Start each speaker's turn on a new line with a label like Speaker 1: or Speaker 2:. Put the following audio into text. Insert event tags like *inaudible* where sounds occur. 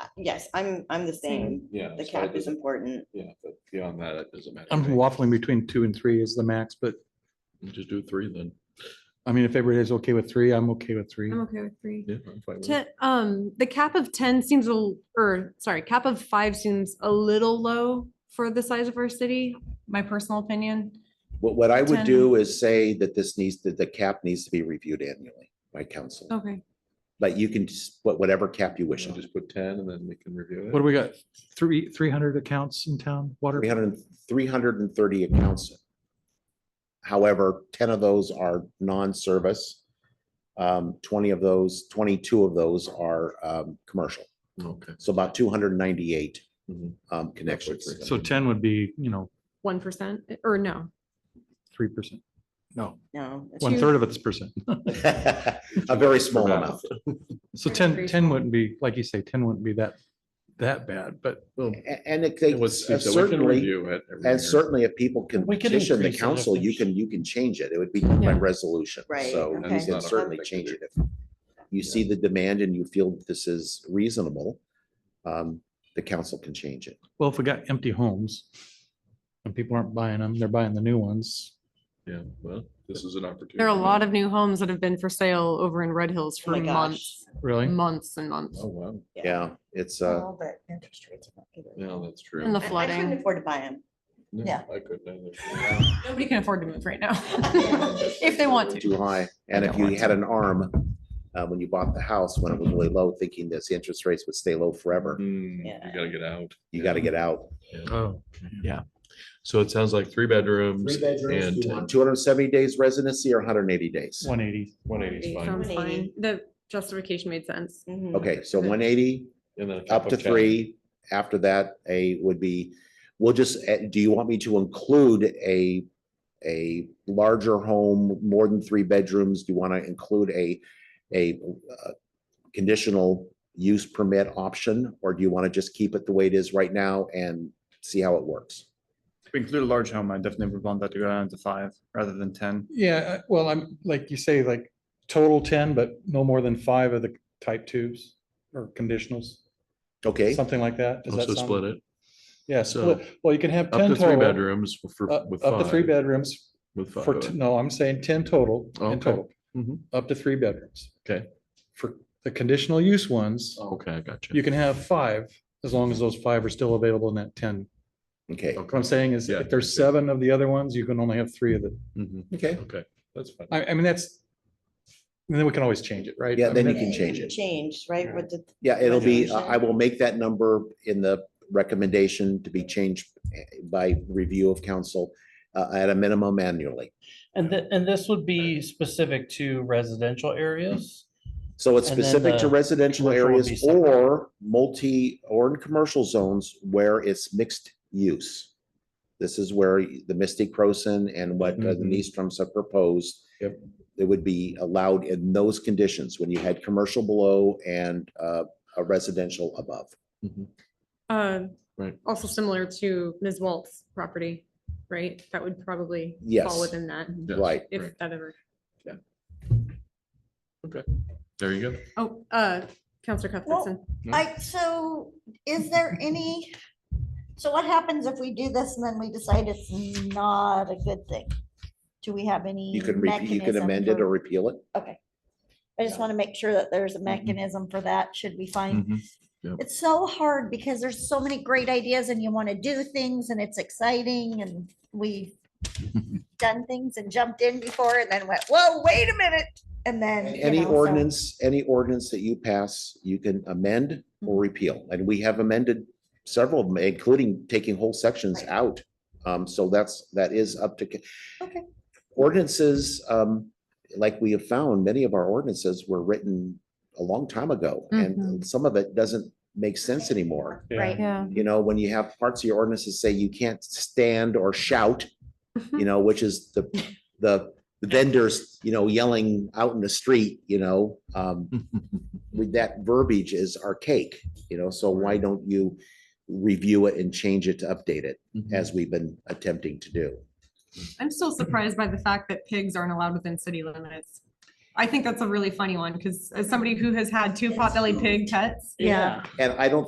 Speaker 1: Uh, yes, I'm, I'm the same.
Speaker 2: Yeah.
Speaker 1: The
Speaker 2: so it
Speaker 1: cap is
Speaker 2: doesn't-
Speaker 1: important.
Speaker 2: Yeah, but beyond that, it doesn't matter. to
Speaker 3: I'm
Speaker 2: me.
Speaker 3: waffling between two and three is the max, but
Speaker 2: Just do three then.
Speaker 3: I mean, if everybody's okay with three, I'm okay with three.
Speaker 4: I'm okay with three.
Speaker 2: Yeah, I'm fine with it.
Speaker 4: Ten, um, the cap of ten seems, a l- or sorry, cap of five seems a little low for the size of our city, my personal opinion.
Speaker 5: What, what I would
Speaker 4: Ten.
Speaker 5: do is say that this needs, that the cap needs to be reviewed annually by council.
Speaker 4: Okay,
Speaker 5: But you can just put whatever cap you
Speaker 2: We
Speaker 5: wish.
Speaker 2: should just put ten and then we can review it.
Speaker 3: What do we got? Three, three hundred accounts in town, water?
Speaker 5: 300 330 accounts. However, ten of those are non-service. Um, twenty of those, twenty-two of those are, um, commercial.
Speaker 2: Okay.
Speaker 5: So about two hundred and ninety-eight,
Speaker 2: Mhm.
Speaker 5: um, connections.
Speaker 2: three.
Speaker 3: So ten would be, you know,
Speaker 4: one percent, or no,
Speaker 3: three percent. No,
Speaker 1: No. it's-
Speaker 3: one third of it's percent.
Speaker 5: *laughs* A very small amount.
Speaker 3: So
Speaker 4: Very
Speaker 3: 10
Speaker 4: free
Speaker 3: 10
Speaker 4: form.
Speaker 3: wouldn't be, like you say, ten wouldn't be that, that bad, but
Speaker 5: A- And it
Speaker 2: It was,
Speaker 5: takes,
Speaker 2: so we can
Speaker 5: uh, certainly,
Speaker 2: review it. every year.
Speaker 5: and certainly if people can
Speaker 3: We could
Speaker 5: petition the
Speaker 3: increase it if
Speaker 5: council, you
Speaker 3: there's-
Speaker 5: can, you can change it. It would be by
Speaker 4: Yeah.
Speaker 5: resolution.
Speaker 1: Right,
Speaker 5: So
Speaker 1: okay.
Speaker 5: you
Speaker 1: That's
Speaker 5: can
Speaker 2: not a
Speaker 5: certainly
Speaker 2: hard thing
Speaker 5: change
Speaker 2: to
Speaker 5: it. If you see the demand and you feel this is reasonable, um, the council can change it.
Speaker 3: well, if we got empty homes and people aren't buying them, they're buying the new ones.
Speaker 2: Yeah, well, this is an opportunity.
Speaker 4: there are a lot of new homes that have been for sale over in Red Hills
Speaker 1: Oh
Speaker 4: for
Speaker 1: my gosh.
Speaker 4: months,
Speaker 3: Really?
Speaker 4: months and months.
Speaker 2: Oh, wow.
Speaker 5: Yeah, it's, uh,
Speaker 1: All the interest rates. are not good.
Speaker 2: Yeah, that's true.
Speaker 4: And the
Speaker 1: I- I couldn't
Speaker 4: flooding,
Speaker 1: afford to buy them.
Speaker 2: No,
Speaker 1: yeah.
Speaker 2: I couldn't.
Speaker 4: nobody can afford to move right now, *laughs* if they want
Speaker 5: too
Speaker 4: to.
Speaker 5: high. And if
Speaker 4: don't
Speaker 5: you
Speaker 4: want
Speaker 5: had an arm, uh, when you bought the house, when it was really low, thinking that the interest rates would stay low forever,
Speaker 2: Mm,
Speaker 1: Yeah.
Speaker 2: You gotta get out.
Speaker 5: you gotta get out.
Speaker 3: Oh,
Speaker 2: So it sounds like three bedrooms and
Speaker 5: Two hundred and seventy days residency or hundred and eighty days?
Speaker 3: one eighty.
Speaker 2: one eighty is fine.
Speaker 4: Sounds fine. The justification made sense.
Speaker 1: Mhm.
Speaker 5: Okay, so one eighty,
Speaker 2: And then a cup
Speaker 5: up to
Speaker 2: of chai.
Speaker 5: three. After that, a would be, we'll just, eh, do you want me to include a, a larger home, more than three bedrooms? Do you want to include a, a uh, conditional use permit option? Or do you want to just keep it the way it is right now and see how it works?
Speaker 6: If we include a large home, I definitely would want that to go down to five rather than ten.
Speaker 3: Yeah, I- well, I'm, like you say, like total ten, but no more than five of the type twos or conditionals,
Speaker 5: Okay,
Speaker 3: something like that. Does that
Speaker 2: Also
Speaker 3: sound-
Speaker 2: split it
Speaker 3: Yeah,
Speaker 2: So,
Speaker 3: split. Well, you can have
Speaker 2: up
Speaker 3: ten
Speaker 2: to three
Speaker 3: total.
Speaker 2: bedrooms for,
Speaker 3: Up
Speaker 2: with
Speaker 3: Uh, up to three
Speaker 2: five,
Speaker 3: bedrooms
Speaker 2: with five.
Speaker 3: for,
Speaker 2: of
Speaker 3: t-
Speaker 2: it.
Speaker 3: no, I'm saying ten total, in
Speaker 2: Okay.
Speaker 3: total,
Speaker 2: Mhm.
Speaker 3: up to three bedrooms.
Speaker 2: Okay.
Speaker 3: For the conditional use ones,
Speaker 2: Okay, I got you.
Speaker 3: you can have five, as long as those five are still available in that ten.
Speaker 5: okay,
Speaker 3: What I'm saying is,
Speaker 2: Yeah,
Speaker 3: if there's
Speaker 2: yeah.
Speaker 3: seven of the other ones, you can only have three of the,
Speaker 2: Mhm.
Speaker 5: okay.
Speaker 2: Okay, that's fine.
Speaker 3: I, I mean, that's. And then we can always change it, right?
Speaker 5: Yeah,
Speaker 3: I
Speaker 5: then
Speaker 3: mean,
Speaker 5: you can
Speaker 1: Yeah,
Speaker 5: change it.
Speaker 1: Change, right? With the,
Speaker 5: Yeah, it'll be,
Speaker 1: Resolution.
Speaker 5: I will make that number in the recommendation to be changed eh, by review of council uh, at a minimum annually.
Speaker 7: And thi- and this would be specific to residential areas?
Speaker 5: So it's
Speaker 7: And then
Speaker 5: specific to
Speaker 7: the
Speaker 5: residential
Speaker 7: commercial would
Speaker 5: areas
Speaker 7: be separate.
Speaker 5: or multi or in commercial zones where it's mixed use. This is where the Misty Croson and what uh,
Speaker 7: Mm-hmm.
Speaker 5: the
Speaker 2: Mhm.
Speaker 5: Niestrums have proposed.
Speaker 2: Yep.
Speaker 5: It would be allowed in those conditions when you had commercial below and uh, a residential above.
Speaker 2: Mm-hmm.
Speaker 4: Uh,
Speaker 2: Right.
Speaker 4: also similar to Ms. Walt's property, right? That would probably
Speaker 5: Yes.
Speaker 4: fall within that,
Speaker 2: Yes,
Speaker 5: Right.
Speaker 4: if that ever.
Speaker 2: There you go.
Speaker 4: Oh, uh, Counselor Cuthbertson.
Speaker 8: I, so is there any, so what happens if we do this and then we decide it's not a good thing? Do we have any?
Speaker 5: You can, re- you can
Speaker 8: mechanism
Speaker 5: amend it
Speaker 8: for-
Speaker 5: or Mm-hmm. repeal it.
Speaker 8: Okay. I just want to make sure that there's a mechanism for that, should we find.
Speaker 5: Mm-hmm.
Speaker 2: Mhm. Yep.
Speaker 8: It's so hard because there's so many great ideas and you want to do things and it's exciting and we've
Speaker 5: *laughs*
Speaker 8: done things and jumped in before and then went, whoa, wait a minute. And then. you
Speaker 5: Any
Speaker 8: know, so-
Speaker 5: ordinance, any ordinance that you pass, you can amend
Speaker 8: Mm-hmm.
Speaker 5: or repeal, and we have amended several of them, including taking whole sections
Speaker 8: Right.
Speaker 5: out. Um, so that's, that is up to. ca-
Speaker 8: Okay.
Speaker 5: Ordinances, um, like we have found, many of our ordinances were written a long time ago, and
Speaker 8: Mm-hmm.
Speaker 4: Mhm.
Speaker 5: some of it doesn't make sense anymore.
Speaker 8: Right.
Speaker 4: Yeah.
Speaker 5: You know, when you have parts of your ordinances say you can't stand or shout, you know, which is the, the vendors, you know, yelling out in the street, you know, um, with that verbiage is archaic, you know, so why don't you review it and change it to update it as we've been attempting to do?
Speaker 4: I'm still surprised by the fact that pigs aren't allowed within city limits. I think that's a really funny one, because as somebody who has had two potbelly pig pets.
Speaker 8: Yeah.
Speaker 5: And I don't